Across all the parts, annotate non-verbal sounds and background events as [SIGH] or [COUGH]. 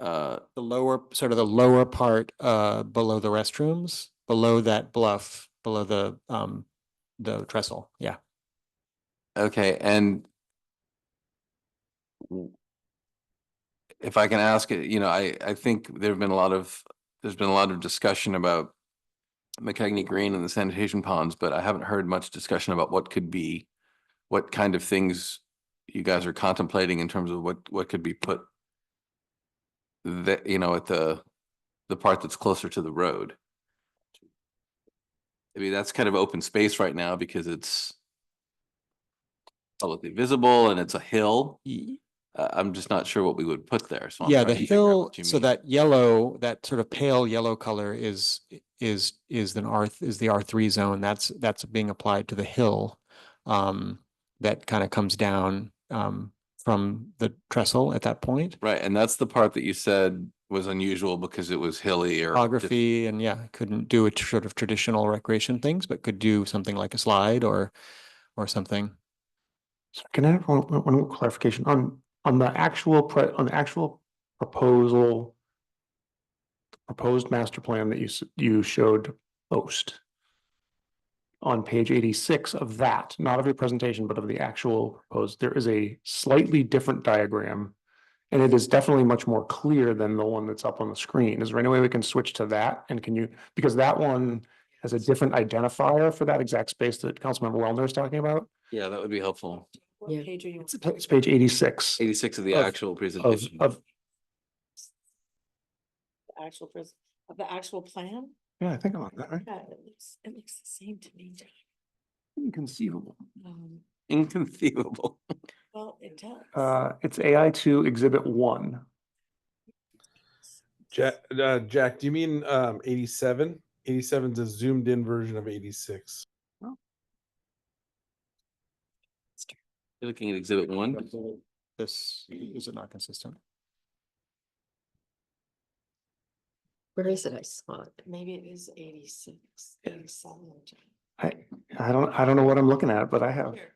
uh, the lower, sort of the lower part, uh, below the restrooms, below that bluff, below the, um, the trestle, yeah. Okay, and w- if I can ask, it, you know, I, I think there've been a lot of, there's been a lot of discussion about McCagney Green and the sanitation ponds, but I haven't heard much discussion about what could be, what kind of things you guys are contemplating in terms of what, what could be put that, you know, at the, the part that's closer to the road. I mean, that's kind of open space right now because it's publicly visible and it's a hill. Y- Uh, I'm just not sure what we would put there, so. I'm Yeah, trying the to figure out hill, Oh, what you so mean. that yellow, that sort of pale yellow color is, is, is an R, th- is the R three zone. That's, that's being applied to the hill. Um, that kind of comes down, um, from the trestle at that point. Right, and that's the part that you said was unusual because it was hilly or. dif- Topography and yeah, couldn't do a tr- sort of traditional recreation things, but could do something like a slide or, or something. So can I have one, one- one clarification on, on the actual, pre- on the actual proposal? Proposed master plan that you, s- you showed post. On page eighty-six of that, not of your presentation, but of the actual proposed, there is a slightly different diagram. And it is definitely much more clear than the one that's up on the screen. Is there any way we can switch to that? And can you, because that one has a different identifier for that exact space that Councilmember Wellner is talking about? Yeah, that would be helpful. What page are you It's pa- it's page eighty-six Eighty-six of the Of- actual of, presentation. of, on? Actual pres- of the actual plan? yeah, I think I'm on that, right? Yeah, it looks, it looks the same to me. Inconceivable. Um, [LAUGHS] Inconceivable. well, it does. Uh, it's AI two exhibit one. Jack, uh, Jack, do you mean um, 87? 87 is a zoomed in version of 86. You're looking at exhibit one. This, is it not consistent? Where is it? I saw it. Maybe it is eighty-six, eighty-seven. I, I don't, I don't know what I'm looking at, but I have, Here.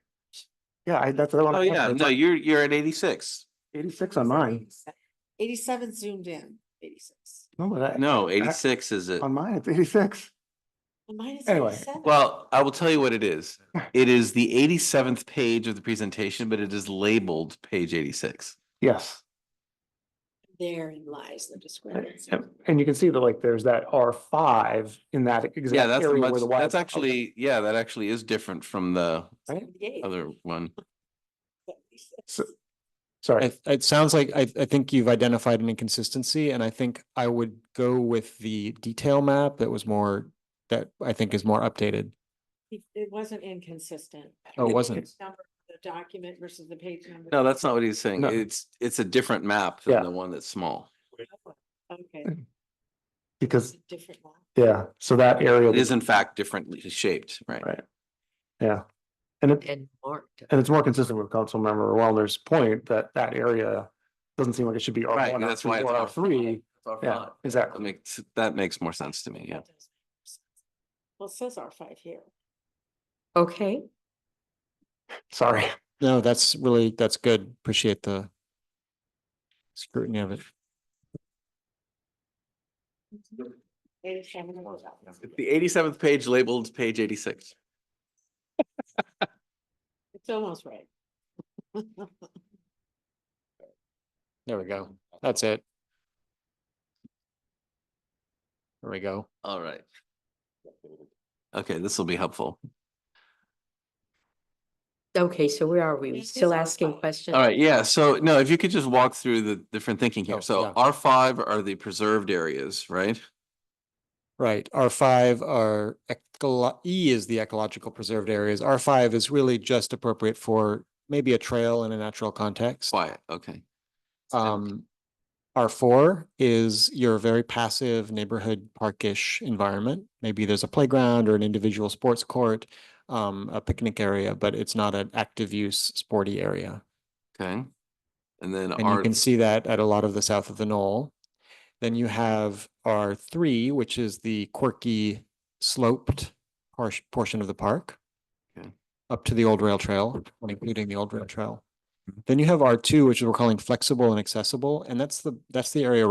yeah, I, that's the one. Oh, I'm yeah, looking no, at. you're, you're at eighty-six. Eighty-six on mine. Eighty-seven zoomed in, eighty-six. No, but I- [LAUGHS] No, eighty-six is it. on mine, it's eighty-six. Well, Mine is Anyway, eighty-seven. Well, I will tell you what it [LAUGHS] is. It is the eighty-seventh page of the presentation, but it is labeled page eighty-six. Yes. Therein lies the discrepancy. And and you can see that like there's that R five in that Yeah, exact that's a area where much, the. Y- that's okay. actually, yeah, that actually is different from the Seventy-eight, other one. seventy-six. So- Sorry, It, it sounds like, I, I think you've identified an inconsistency and I think I would go with the detail map that was more, that I think is more updated. It it wasn't inconsistent. Oh, it wasn't. Page number of The document versus the page number. No, that's not what he's saying. No. It's, it's a different map Yeah. than the one that's small. Okay. it's because, a Different one. yeah, so that area. It is in fact differently shaped, right? Right. Yeah. And it, and marked. and it's more consistent with Councilmember Wellner's point that that area doesn't seem like it should be R Right, one, R that's two, why it's or R three. Yeah, That exactly. makes, that makes more sense to me, yeah. That does make sense. Well, it says R five here. Okay, Sorry. No, that's really, that's good. Appreciate the scrutiny of it. Eighty-seven was out. It's The eighty-seventh page labeled page eighty-six. It's almost right. [LAUGHS] There we go. That's it. There we go. All right. Okay, this will be helpful. okay, so where are we? Yeah, We it Still is our asking fault. questions? All right, yeah, so no, if you could just walk through the different thinking Oh, here. So yeah. R five are the preserved areas, right? Right, R five are, ecolo- E is the ecological preserved areas. R five is really just appropriate for maybe a trail in a natural context. Quiet, okay. Um, R four is your very passive neighborhood parkish environment. Maybe there's a playground or an individual sports court, um, a picnic area, but it's not an active use sporty area. Okay. And then And you R, can see that at a lot of the south of the knoll. Then you have R three, which is the quirky sloped par- portion of the park. Okay. Up to the old rail trail, including the Mm-hmm. old rail trail. Then you have R two, which we're calling flexible and accessible, and that's the, that's the area